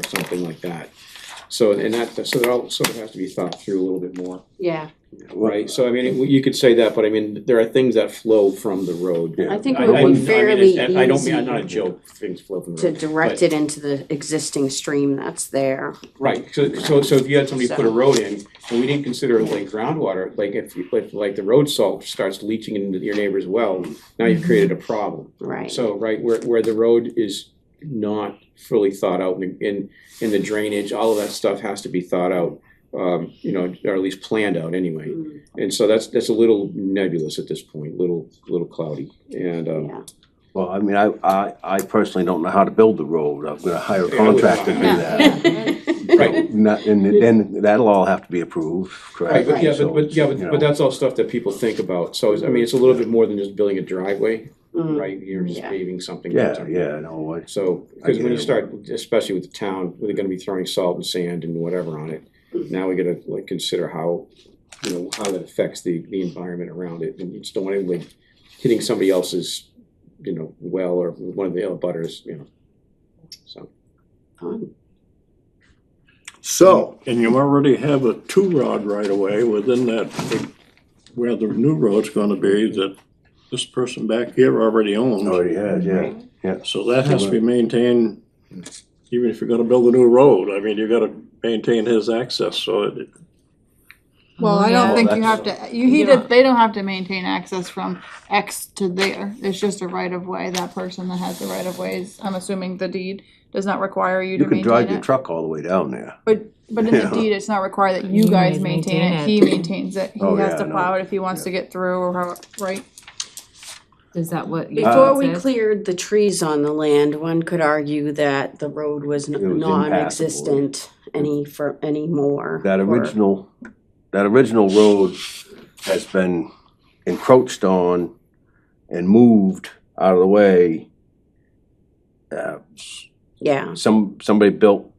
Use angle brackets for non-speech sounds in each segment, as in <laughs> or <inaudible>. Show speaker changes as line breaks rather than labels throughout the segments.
something like that. So, and that, so that all sort of has to be thought through a little bit more,
Yeah,
right? So I mean, you could say that, but I mean, there are things that flow from the road.
I think
I-
it
I- I
would
mean,
be
it's-
fairly
I don't mean, I'm not a
easy
joke, things flow from the
to
road.
direct it into the existing stream that's there.
Right, so, so, so if you had somebody put a road in, and we didn't consider like groundwater, like if, you- like, like the road salt starts leaching into your neighbor's well, now you've created a problem.
Right,
So, right, where, where the road is not fully thought out, and, and, and the drainage, all of that stuff has to be thought out, um, you know, or at least planned out anyway.
Mm,
And so that's, that's a little nebulous at this point, little, little cloudy, and, um,
yeah,
Well, I mean, I, I, I personally don't know how to build the road, I'm gonna hire a
Yeah, I would-
contractor to do
<laughs>
that.
right,
Not, and then that'll all have to be approved,
Right,
correct?
but yeah,
So,
but, but, yeah,
you
but,
know.
but that's all stuff that people think about, so, it's- I mean, it's a little bit more than just building a driveway,
Mm.
right, you're just
Yeah.
paving something.
Yeah, yeah, no, I-
So,
I
because when
get
you
it.
start, especially with the town, they're gonna be throwing salt and sand and whatever on it,
Mm-hmm.
now we gotta like consider how, you know, how that affects the, the environment around it, and you just don't want anybody hitting somebody else's, you know, well, or one of the other butters, you know, so.
Fun.
Uh,
So,
And you already have a two rod right away within that, where the new road's gonna be that this person back here already
Oh,
owns.
already has, yeah.
So that has to be maintained, even if you're gonna build a new road, I mean, you gotta maintain his access, so it,
Well, I
Yeah.
don't think you
Well,
have to, you, he did, they don't have to maintain access from X to there. It's just a right of way. That person that has the right of ways, I'm assuming the deed does not require you
You
to
can drive
maintain
your
it.
truck all the way down there.
But, but in the
Yeah.
deed, it's not required that you guys maintain it. He maintains it. He
Oh,
has
yeah,
to
no.
plow it if he wants to get through or how, right?
Is that what? you
Before
said?
we cleared the trees on the land, one could argue that the road was
It was
n-
impassable.
non-existent any for, anymore.
That
or-
original, that original road has been encroached on and moved out of the way. Uh,
Yeah,
some, somebody built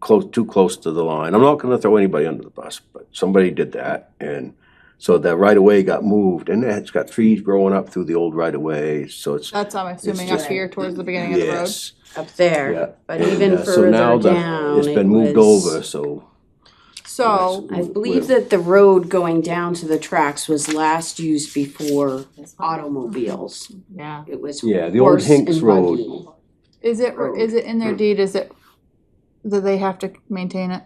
close, too close to the line. I'm not gonna throw anybody under the bus, but somebody did that. And so that right of way got moved and it's got trees growing up through the old right of way, so it's.
That's, I'm assuming up
just-
here towards the beginning of the road.
Yes,
up
yeah.
there, but
And,
even
uh, so
further
now the-
down,
It's been
it
moved
was-
over, so.
So,
I
We're-
believe that the road going down to the tracks was last used before automobiles.
Yeah.
It was
Yeah, the old
horse
Hinks
and
Road.
buggy.
is it,
Road.
is it in
Mm.
their deed, is it, that they have to maintain it?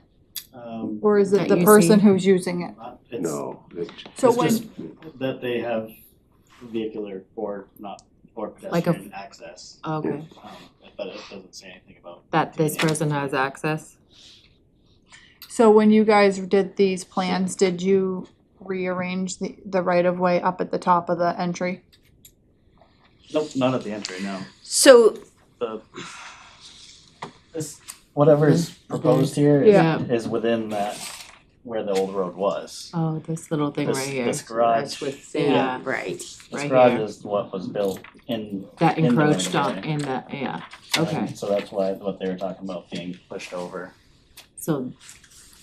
Um,
Or is it
That
the
you
person
see.
who's using it?
not- it's,
No, it-
So
it's
when.
just that they have vehicular or not, or
Like a-
pedestrian access,
Okay,
um, but it doesn't say anything about.
that this person has access?
So when you guys did these plans, did you rearrange the, the right of way up at the top of the entry?
Nope, not at the entry, no.
So
The, this, whatever is
Mm-hmm.
proposed here
Yeah.
is, is within that, where the old road was.
Oh, this little thing
This-
right here,
This
that's
garage, this
Yeah.
within, right.
right
garage
here.
is what was built in.
that
in the right
encroached
of way.
on in the, yeah, okay.
So that's why, what they were talking about being pushed over.
So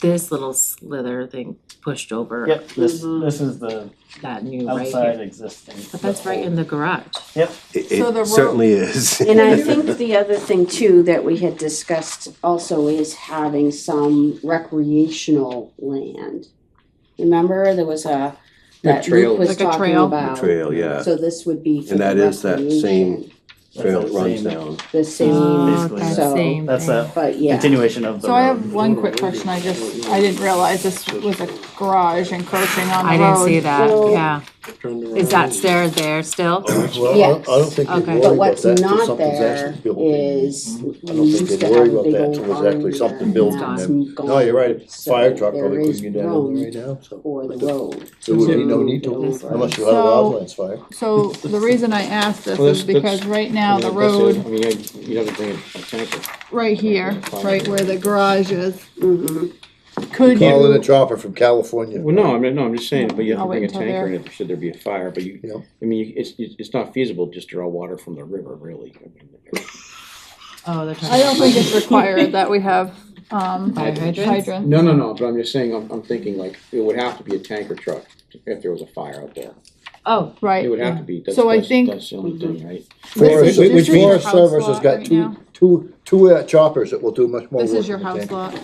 this little slither thing pushed over
Yep, this,
Mhm.
this is the
that new Mm-hmm. right
outside
here.
existing.
But that's right
the
in the garage.
it
So the road-
it certainly is.
And
<laughs>
<laughs>
I think the other thing too that we had discussed also is having some recreational land. Remember, there was a, that
trail.
Luke was
Like a
talking
trail.
The
about.
trail, yeah.
So this would be for
And that
the
is that same
recreation,
old-
Trail that
that's the
runs
same-
down.
the same,
Ah.
Oh,
basically
that
so-
same
That's
thing.
a
but yeah.
continuation of the
So I
road.
have one quick question, I just, I didn't realize this was a garage encroaching on the
I
road.
didn't see that,
Well-
yeah.
turned around.
Is that stair there still?
Oh,
Yes.
I don't think you'd
Okay.
worry
But
about
what's
that till
not
something's
there
actually built.
is,
I
we
don't
used
think
to
they'd
have
worry
a
about
big
that
old
till there's actually something
barn
built.
there, and
and then-
that's
No, you're right, a
gone.
fire truck probably
There is
couldn't get down there right
room
now, so
for the road.
there would be no need to,
Over.
unless you had a
So-
wildlands fire.
So the reason I asked this
Well,
is
that's- that's-
because right now the
I mean, that's it.
road,
I mean, I- you'd have to bring a tanker.
right here, right where the garage is,
Mhm.
could
Call in a
you,
chopper from California.
Well, no, I mean, no, I'm just saying, but you have
I'll
to bring
wait
a
until
tanker
they're-
in if, should there be a fire, but you,
Yeah.
I mean, you- it's, it's not feasible just to draw water from the river, really. I mean,
Oh, they're talking.
I don't think it's required that we have, um,
<laughs>
Fire hydrants?
hydrants.
No, no, no, but I'm just saying, I'm, I'm thinking like, it would have to be a tanker truck if there was a fire out there.
Oh,
Right.
It would have to be, that's,
So I
that's,
think- Mhm.
that's the only thing, right?
This
Forest,
is- this
which
is
Forest
house
Service has
lot
got
right
two,
now.
two, two uh, choppers that will do much more work.
This is your
than the
house
tanker.
lot.